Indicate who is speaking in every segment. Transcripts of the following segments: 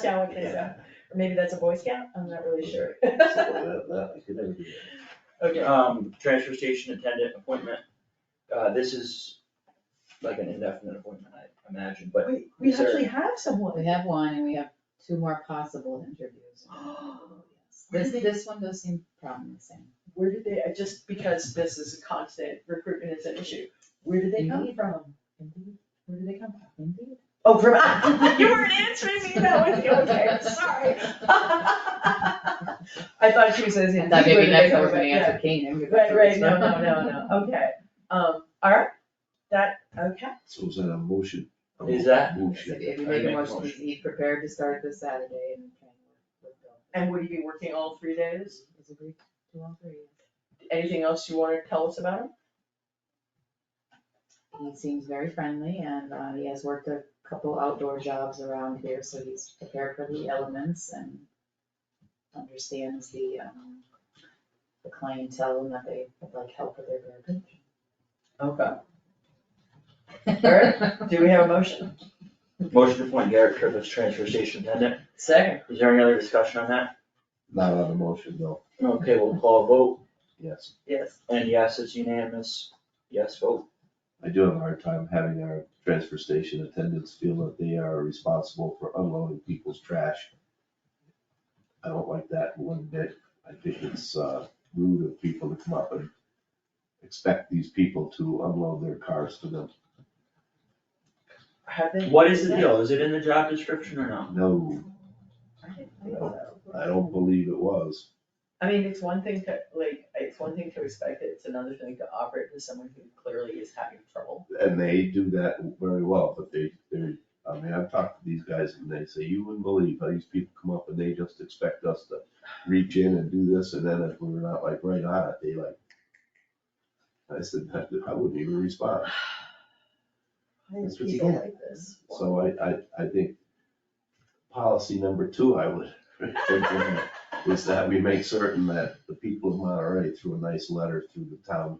Speaker 1: Sound like they sound, or maybe that's a Boy Scout, I'm not really sure.
Speaker 2: So that, that, you could never do
Speaker 1: Okay,
Speaker 3: Um, transfer station attendant appointment, uh, this is like an indefinite appointment, I imagine, but
Speaker 1: we, we
Speaker 3: Is there-
Speaker 1: actually have
Speaker 4: We
Speaker 1: someone.
Speaker 4: have one and we have two more possible interviews.
Speaker 1: Where did
Speaker 4: This,
Speaker 1: they-
Speaker 4: this one does seem promising.
Speaker 1: Where did they, I just because this is a constant, recruitment is an issue, where did they come
Speaker 4: Indeed.
Speaker 1: from?
Speaker 4: Indeed. Where do they come from? Indeed.
Speaker 1: Oh, from, you weren't answering me, that was, okay, sorry. I thought she was saying.
Speaker 4: I thought
Speaker 1: where
Speaker 4: maybe
Speaker 1: did they
Speaker 4: next time
Speaker 1: come
Speaker 4: we're gonna
Speaker 1: from? Yeah.
Speaker 4: answer Kane. and we go
Speaker 1: Right,
Speaker 4: through
Speaker 1: right,
Speaker 4: this
Speaker 1: no,
Speaker 4: one.
Speaker 1: no, no, no, okay, um, alright, that, okay,
Speaker 2: that. So is that a motion? A mo-
Speaker 3: Is that-
Speaker 2: Motion.
Speaker 4: If you
Speaker 3: I
Speaker 4: make a
Speaker 3: make a
Speaker 4: motion,
Speaker 3: motion.
Speaker 4: be prepared to start this Saturday and try and work with
Speaker 1: and would you be working all three
Speaker 4: Bill.
Speaker 1: days?
Speaker 4: Is agreed to all three.
Speaker 1: Anything else you wanna tell us about him?
Speaker 4: He seems very friendly and uh, he has worked a couple outdoor jobs around here, so he's prepared for the elements and understands the, um, the clientele and that they would like help with their
Speaker 1: Okay.
Speaker 4: garbage.
Speaker 1: Do we have a motion?
Speaker 3: motion to appoint Garrett Tripp as transfer station attendant.
Speaker 1: Second.
Speaker 3: Is there any other discussion on that?
Speaker 2: Not on the motion, no,
Speaker 3: Okay, we'll call a vote,
Speaker 2: yes.
Speaker 1: Yes.
Speaker 3: and yes, it's unanimous, yes vote.
Speaker 2: I do have a hard time having our transfer station attendants feel that they are responsible for unloading people's trash. I don't like that one bit. I think it's, uh, rude of people to come up and expect these people to unload their cars to them.
Speaker 1: Have they?
Speaker 3: What is the deal, is it in the job description or no?
Speaker 2: No, I don't believe it was.
Speaker 1: I mean, it's one thing to, like, it's one thing to expect it, it's another thing to operate with someone who clearly is having trouble.
Speaker 2: and they do that very well, but they, they're, I mean, I've talked to these guys and they say, you wouldn't believe how these people come up and they just expect us to reach in and do this, and then if we're not like right on it, they like. I said, "I- I wouldn't even respond,
Speaker 1: Why
Speaker 2: That's
Speaker 1: do
Speaker 2: what you
Speaker 1: people
Speaker 2: get.
Speaker 1: like this?
Speaker 2: so I, I, I think policy number two I would implement is that we make certain that the people of Monterey through a nice letter through the town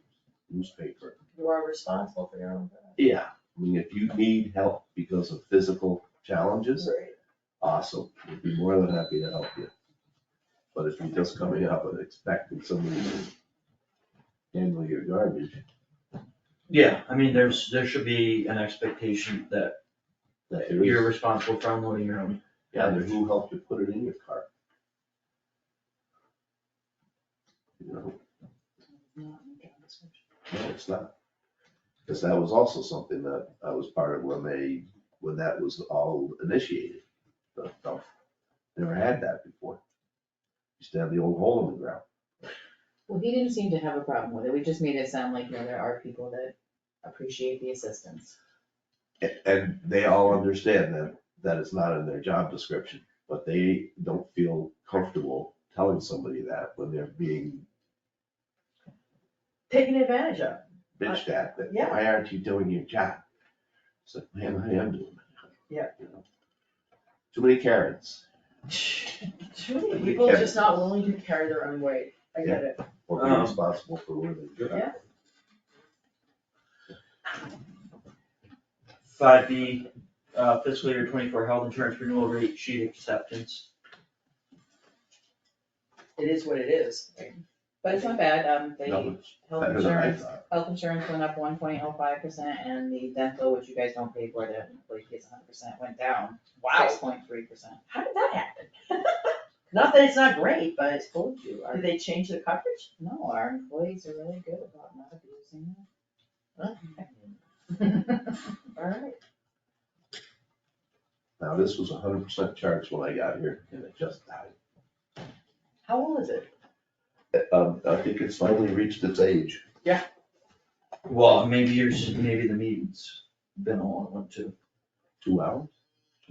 Speaker 2: newspaper
Speaker 1: You are responsible for your own.
Speaker 2: Yeah. I mean, if you need help because of physical challenges, awesome, we'd be more than happy to help you. But if you're just coming up and expecting somebody to handle your garbage,
Speaker 3: Yeah, I mean, there's, there should be an expectation that
Speaker 2: that there
Speaker 3: you're
Speaker 2: is,
Speaker 3: responsible for unloading your own.
Speaker 2: yeah, there's who helped you put it in your car. You know, no, it's not. Because that was also something that I was part of when they, when that was all initiated. The dump. Never had that before. Used to have the old hole in the ground.
Speaker 4: Well, he didn't seem to have a problem with it, we just made it sound like, you know, there are people that appreciate the assistance.
Speaker 2: A- And they all understand that, that it's not in their job description, but they don't feel comfortable telling somebody that when they're being
Speaker 1: Taken advantage of.
Speaker 2: bitched at, that,
Speaker 1: Yeah.
Speaker 2: why aren't you doing your job? It's like, man, I am doing my job.
Speaker 1: Yeah.
Speaker 2: You know? Too many Karens,
Speaker 1: Too many
Speaker 2: You
Speaker 1: people are
Speaker 2: can't-
Speaker 1: just not willing to carry their own weight. I get it.
Speaker 2: or be
Speaker 3: Um,
Speaker 2: responsible for where they go.
Speaker 1: Yeah.
Speaker 3: Five B, uh, fiscal year twenty-four health insurance renewal rate sheet acceptance.
Speaker 1: It is what it is.
Speaker 4: But it's not bad, um, the
Speaker 2: No, it's
Speaker 4: health
Speaker 2: Better than I
Speaker 4: insurance,
Speaker 2: thought.
Speaker 4: health insurance went up one point oh five percent, and the dental, which you guys don't pay for, that employee gets hundred percent, went down six point three percent.
Speaker 1: How did that happen? Not that it's not great, but
Speaker 4: Told you, our,
Speaker 1: did they change the coverage?
Speaker 4: no, our employees are really good about not abusing
Speaker 1: Alright.
Speaker 2: Now, this was hundred percent charged when I got here and it just died.
Speaker 1: How old is it?
Speaker 2: Um, I think it's finally reached its age.
Speaker 3: Well, maybe yours, maybe the meeting's been a long one too.
Speaker 2: Two hours?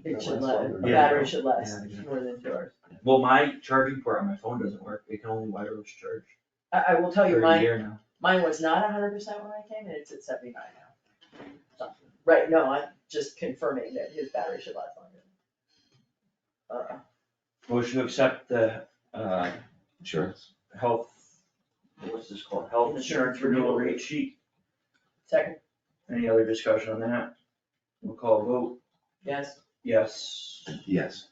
Speaker 1: It should
Speaker 2: Last
Speaker 1: last,
Speaker 2: longer.
Speaker 1: a
Speaker 3: Yeah.
Speaker 1: battery should last
Speaker 3: Yeah.
Speaker 1: more than two hours.
Speaker 3: Well, my charging port on my phone doesn't work, it can only wireless charge
Speaker 1: I, I will tell you,
Speaker 3: for a
Speaker 1: mine,
Speaker 3: year now.
Speaker 1: mine was not hundred percent when I came, and it's at seventy-nine now. So, Right, no, I'm just confirming that his battery should last longer. Uh,
Speaker 3: Motion to accept the, uh,
Speaker 2: Insurance.
Speaker 3: health, what's this called, health insurance renewal rate sheet,
Speaker 1: Second,
Speaker 3: any other discussion on that? We'll call a vote,
Speaker 1: yes?
Speaker 3: yes.
Speaker 2: Yes.